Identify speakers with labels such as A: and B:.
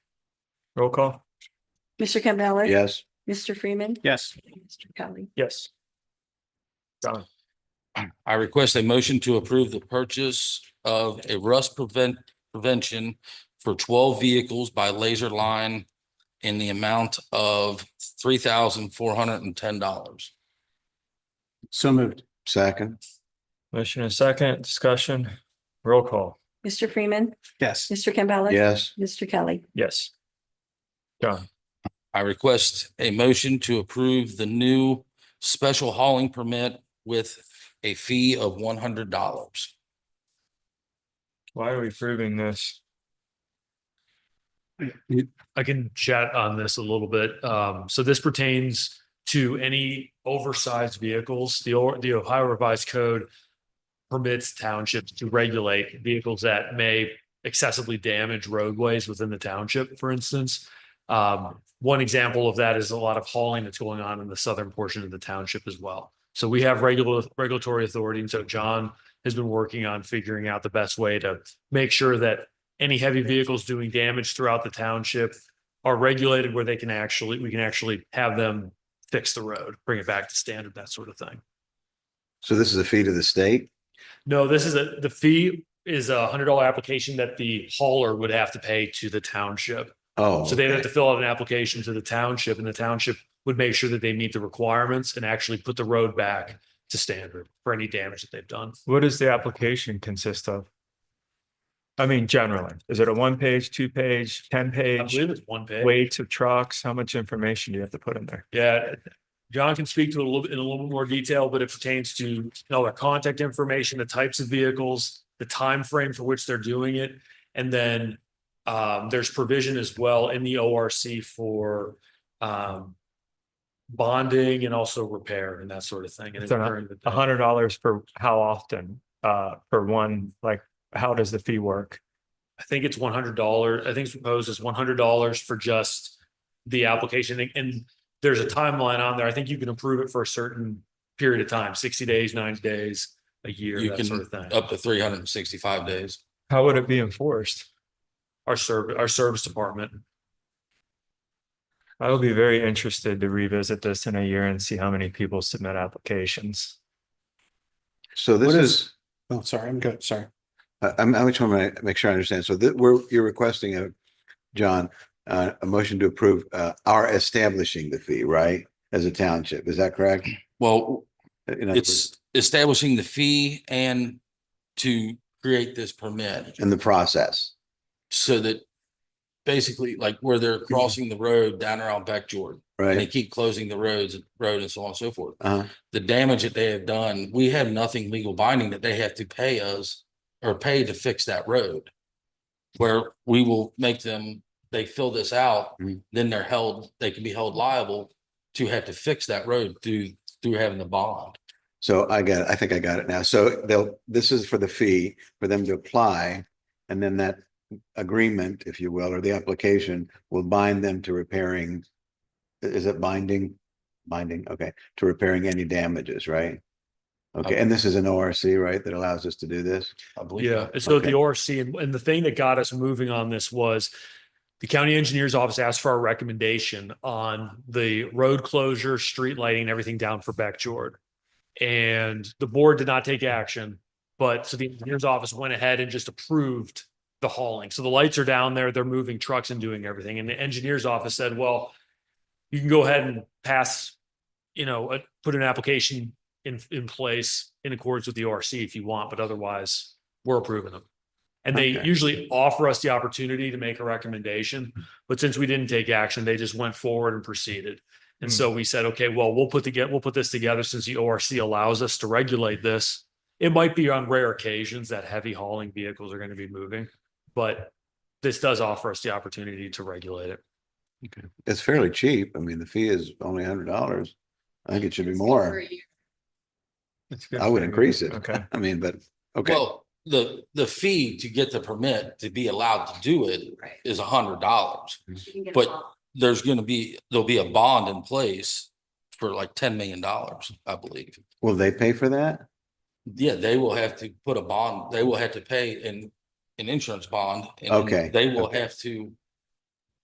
A: Roll call.
B: Mr. Campbell.
C: Yes.
B: Mr. Freeman.
A: Yes.
B: Mr. Kelly.
A: Yes. Done.
D: I request a motion to approve the purchase of a rust prevent, prevention for twelve vehicles by Laser Line in the amount of three thousand four hundred and ten dollars.
C: So moved. Second.
A: Motion and second, discussion, roll call.
B: Mr. Freeman.
C: Yes.
B: Mr. Campbell.
C: Yes.
B: Mr. Kelly.
A: Yes. Done.
D: I request a motion to approve the new special hauling permit with a fee of one hundred dollars.
A: Why are we approving this?
E: I can chat on this a little bit. Um, so this pertains to any oversized vehicles. The, O- the Ohio Revised Code permits townships to regulate vehicles that may excessively damage roadways within the township, for instance. Um, one example of that is a lot of hauling that's going on in the southern portion of the township as well. So we have regular, regulatory authority, and so John has been working on figuring out the best way to make sure that any heavy vehicles doing damage throughout the township are regulated where they can actually, we can actually have them fix the road, bring it back to standard, that sort of thing.
C: So this is a fee to the state?
E: No, this is a, the fee is a hundred dollar application that the hauler would have to pay to the township.
C: Oh.
E: So they'd have
C: okay.
E: to fill out an application to the township and the township would make sure that they meet the requirements and actually put the road back to standard for any damage that they've done.
A: What does the application consist of? I mean, generally, is it a one page, two page, ten
E: I
A: page,
E: believe it's one page.
A: weights of trucks? How much information do you have to put in there?
E: Yeah, John can speak to it a little, bit in a little bit more detail, but it pertains to you know, their contact information, the types of vehicles, the time frame for which they're doing it. And then um, there's provision as well in the ORC for um, bonding and also repair and that sort of thing. And
A: So not-
E: during the
A: A hundred dollars for how often, uh, for one, like, how does the fee work?
E: I think it's one hundred dollars. I think it's proposed as one hundred dollars for just the application And- and there's a timeline on there. I think you can approve it for a certain period of time, sixty days, ninety days, a year,
D: You
E: that
D: can
E: sort of thing.
D: Up to three hundred and sixty-five days.
A: How would it be enforced?
E: Our service, our service department.
A: I would be very interested to revisit this in a year and see how many people submit applications.
C: So this is,
F: Oh, sorry, I'm good, sorry.
C: I- I'm, I just want to make sure I understand. So that we're, you're requesting a, John, uh, a motion to approve, uh, our establishing the fee, right? As a township, is that correct? Uh,
D: Well,
C: In other words,
D: it's establishing the fee and to create this permit.
C: In the process.
D: so that basically like where they're crossing the road down around Beck Jordan, and they
C: Right?
D: keep closing the roads, road and so on and so forth.
C: Uh,
D: The damage that they have done, we have nothing legal binding that they have to pay us or pay to fix that road. Where we will make them, they fill this out,
C: Mhm.
D: then they're held, they can be held liable to have to fix that road through, through having the bond.
C: so I got, it. I think I got it now. So they'll, this is for the fee for them to apply. And then that agreement, if you will, or the application will bind them to repairing. i- Is it binding? Binding, okay, to repairing any damages, right? Okay, and this is an ORC, right, that allows us to do this?
D: I believe.
E: Yeah, and so
C: Okay.
E: the ORC and, and the thing that got us moving on this was the county engineer's office asked for our recommendation on the road closure, street lighting, and everything down for Beck Jordan. And the board did not take action, but so the engineer's office went ahead and just approved the hauling. So the lights are down there, they're moving trucks and doing everything. And the engineer's office said, well, you can go ahead and pass, you know, a- put an application in, in place in accordance with the ORC if you want, but otherwise we're approving them. And they
C: Okay.
E: usually offer us the opportunity to make a recommendation, but since we didn't take action, they just went forward and proceeded. And
A: Hmm.
E: so we said, okay, well, we'll put together, we'll put this together since the ORC allows us to regulate this. It might be on rare occasions that heavy hauling vehicles are going to be moving, but this does offer us the opportunity to regulate it.
C: It's fairly cheap. I mean, the fee is only a hundred dollars. I think it should be more.
A: It's good
C: I would
A: for you.
C: increase it.
A: Okay.
C: I mean, but, okay,
D: Well, the, the fee to get the permit to be allowed to do it
B: Right.
D: is a hundred dollars.
B: a
D: But there's gonna be, there'll be a bond in place for like ten million dollars, I believe.
C: will they pay for that?
D: Yeah, they will have to put a bond, they will have to pay an, an insurance bond. and then
C: Okay,
D: They will
C: okay.
D: have to